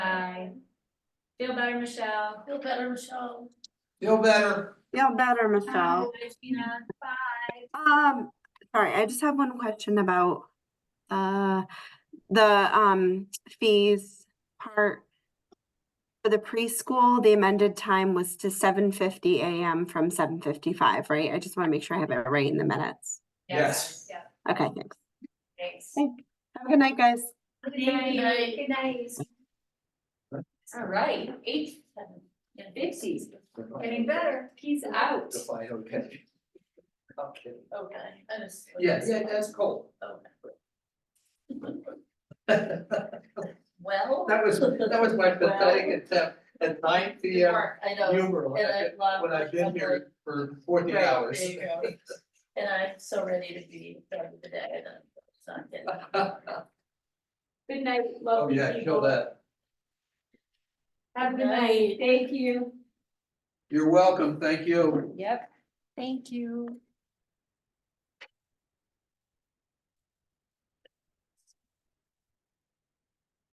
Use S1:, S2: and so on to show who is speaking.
S1: Um, Feel better, Michelle.
S2: Feel better, Michelle.
S3: Feel better.
S4: Feel better, Michelle.
S1: Bye, Gina. Bye.
S4: Um, sorry, I just have one question about uh the um fees part. For the preschool, the amended time was to seven fifty AM from seven fifty-five, right? I just want to make sure I have it right in the minutes.
S3: Yes.
S1: Yeah,
S4: Okay, thanks.
S1: thanks.
S4: Have a good night, guys.
S1: Good
S2: Good
S1: night.
S2: night.
S1: Good night. All right, eight, seven, and fifties, getting better. He's out.
S3: If I okay. Okay.
S2: Okay. I just-
S3: Yeah, yeah, that's cold.
S2: Okay.
S3: That
S2: Well.
S3: was, that was my pathetic attempt at nine P M
S2: I know,
S3: humor
S2: and I love.
S3: when I've been
S2: I'm like,
S3: here for forty
S2: Right,
S3: hours.
S2: there you go. And I'm so ready to be done with the day and I'm not getting.
S1: Good night,
S3: Uh-huh. Oh,
S1: lovely
S3: yeah, kill
S1: people.
S3: that.
S1: Have a good night. Thank you.
S3: You're welcome. Thank you.
S1: Yep. Thank you.